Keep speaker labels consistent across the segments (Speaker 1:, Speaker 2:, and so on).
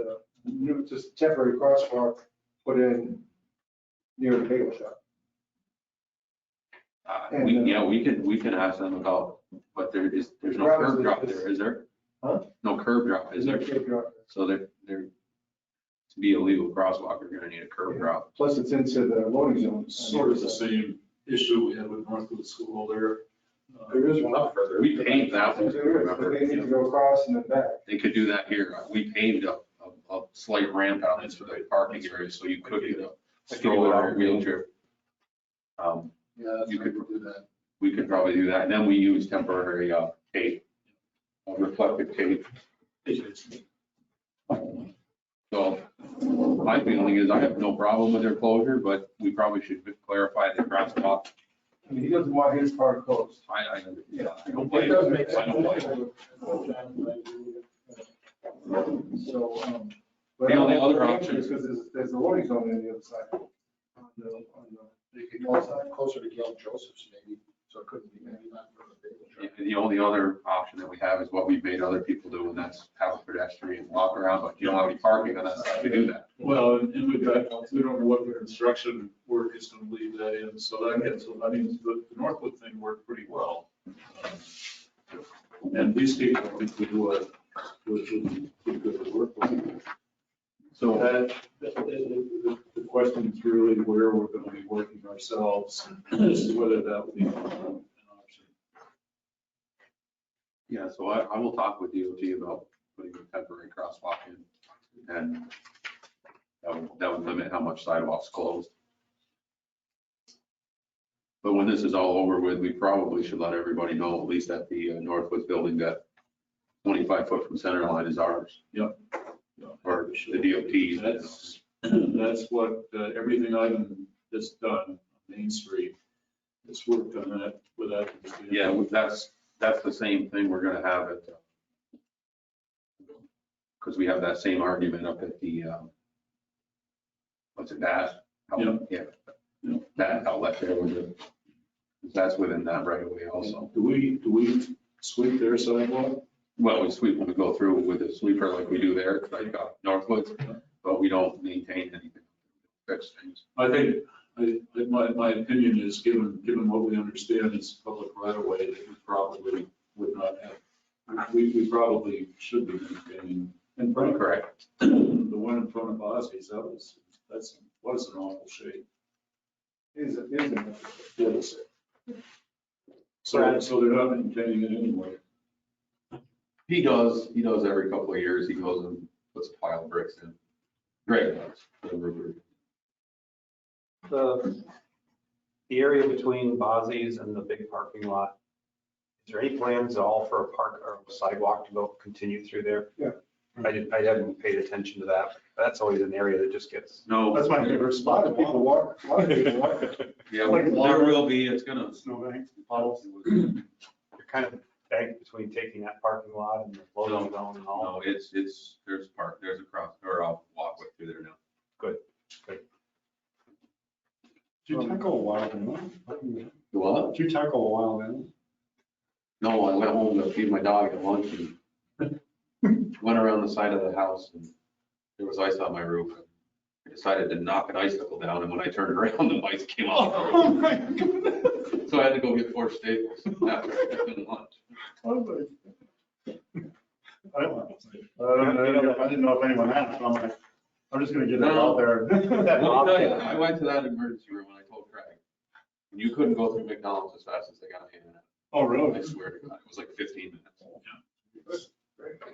Speaker 1: uh, put this temporary crosswalk put in near the bagel shop.
Speaker 2: Uh,
Speaker 1: And,
Speaker 2: We,
Speaker 1: uh,
Speaker 2: yeah, we could, we could ask them about, but there is, there's no
Speaker 1: Travis,
Speaker 2: curb drop
Speaker 1: is-
Speaker 2: there, is there?
Speaker 1: Huh?
Speaker 2: No curb drop, is there? So they're, they're, to be a legal crosswalk, you're gonna need a curb
Speaker 1: Yeah.
Speaker 2: drop.
Speaker 1: Plus it's into the loading zone.
Speaker 3: Sort of the same issue we had with Northwood School there. Uh,
Speaker 1: There is one.
Speaker 2: Up further, we paved that one,
Speaker 1: There is, but
Speaker 2: remember?
Speaker 1: they need to go across in the back.
Speaker 2: They could do that here, we paved a, a, a slight ramp out into the parking area, so you could get a stroller or wheelchair. Um,
Speaker 3: Yeah,
Speaker 2: You
Speaker 3: you
Speaker 2: could-
Speaker 3: could do that.
Speaker 2: we could probably do that, and then we use temporary, uh, tape, uh, reflective tape So my feeling is I have no problem with their closure, but we probably should clarify the crosswalk.
Speaker 1: I mean, he doesn't want his car closed.
Speaker 2: I, I,
Speaker 1: Yeah.
Speaker 2: I don't
Speaker 1: It
Speaker 2: blame
Speaker 1: does make
Speaker 2: you. I don't blame
Speaker 1: sense.
Speaker 2: you.
Speaker 1: So, um.
Speaker 2: The only other option-
Speaker 1: Because there's, there's a loading zone on the other side. On the- on the-
Speaker 4: You could also have closer to Gail Joseph's maybe, so it couldn't be maybe not from the bagel shop.
Speaker 2: The only other option that we have is what we've made other people do, and that's have a pedestrian walk around, but you don't have any parking on that side to do that.
Speaker 3: Well, and and we've got, we don't know what the construction work is gonna leave that in, so that gets, I mean, the the Northwood thing worked pretty well. Um, And these people, I think, would, would, would be good to work with. So
Speaker 2: So
Speaker 3: that, that- that- the the question is really where we're going to be working ourselves, as to whether that would be an option.
Speaker 2: Yeah, so I, I will talk with DOT about putting a temporary crosswalk in and that would, that would limit how much sidewalks closed. But when this is all over with, we probably should let everybody know, at least at the uh, Northwoods building, that twenty-five foot from center line is ours or the DOT's.
Speaker 3: That's, that's what, uh, everything I've that's done on Main Street, it's worked on that with that.
Speaker 2: Yeah, that's, that's the same thing we're gonna have it. Because we have that same argument up at the, um, what's it, that?
Speaker 3: Yeah.
Speaker 2: Yeah.
Speaker 3: Yeah.
Speaker 2: That outlet there was a, that's within that right away also.
Speaker 3: Do we, do we sweep their sidewalk?
Speaker 2: Well, we sweep, when we go through with a sweeper like we do there, like uh, Northwoods, but we don't maintain anything. Fix things.
Speaker 3: I think, I, I- my, my opinion is, given, given what we understand is public right of way, that we probably would not have. We, we probably should be maintaining, and
Speaker 2: Pretty
Speaker 3: probably
Speaker 2: correct.
Speaker 3: the one in front of Ozzy's, that was, that's, was an awful shape.
Speaker 1: Is, is. in-
Speaker 3: Yes. So, so they're not maintaining it anyway.
Speaker 2: He does, he does every couple of years, he goes and puts a pile of bricks in. Great. The river.
Speaker 5: the, the area between Bozzy's and the big parking lot, is there any plans at all for a park or sidewalk to go continue through there?
Speaker 1: Yeah.
Speaker 5: I didn't, I haven't paid attention to that. That's always an area that just gets,
Speaker 2: No.
Speaker 4: That's my favorite
Speaker 1: A lot
Speaker 4: spot.
Speaker 1: of people walk, a lot of people walk.
Speaker 2: Yeah,
Speaker 4: Like
Speaker 2: there
Speaker 4: water.
Speaker 2: will be, it's gonna.
Speaker 4: Snowbank.
Speaker 2: Puddles.
Speaker 5: you're kind of banked between taking that parking lot and the loading zone and all.
Speaker 2: No, it's, it's, there's a park, there's a cross, or I'll walk with through there now.
Speaker 4: Did you tackle a wild animal?
Speaker 2: You what?
Speaker 4: Did you tackle a wild animal?
Speaker 2: No, I went home to feed my dog at lunch and went around the side of the house and there was ice on my roof. I decided to knock an icicle down and when I turned around, the ice came off. the roof.
Speaker 4: Oh my goodness.
Speaker 2: So I had to go get four staples after I took in lunch.
Speaker 4: I don't know. I don't know. I didn't know if anyone had, so I'm like, I'm just gonna get it out there.
Speaker 2: Let me tell you, I went to that emergency room and I told Craig, and you couldn't go through McDonald's as fast as they got in.
Speaker 4: Oh,
Speaker 2: I
Speaker 4: really?
Speaker 2: swear to God, it was like fifteen minutes.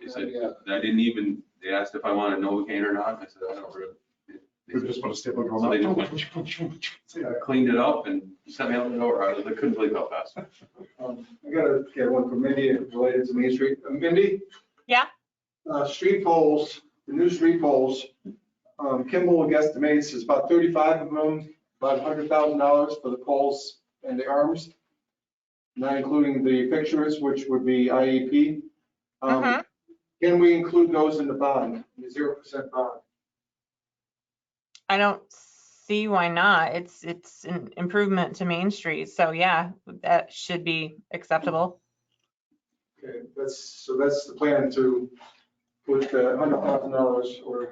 Speaker 2: They said, I didn't even, they asked if I wanted Novocaine or not, and I said, I don't really.
Speaker 4: We
Speaker 2: They
Speaker 4: just want to stay like
Speaker 2: So they just
Speaker 4: going.
Speaker 2: said, I Cleaned it up and sent me out the door, I was- I couldn't believe how fast.
Speaker 1: Um, I gotta get one from Mindy related to Main Street. Uh, Mindy?
Speaker 6: Yeah?
Speaker 1: Uh, street poles, the new street poles, um, Kimball guesstimates is about thirty-five of them, about hundred thousand dollars for the poles and the arms, not including the fixtures, which would be IEP. Um,
Speaker 6: Mhm.
Speaker 1: Can we include those in the bond, the zero percent bond?
Speaker 6: I don't see why not. It's, it's an improvement to Main Street, so yeah, that should be acceptable.
Speaker 1: Okay, that's, so that's the plan to put the hundred thousand dollars or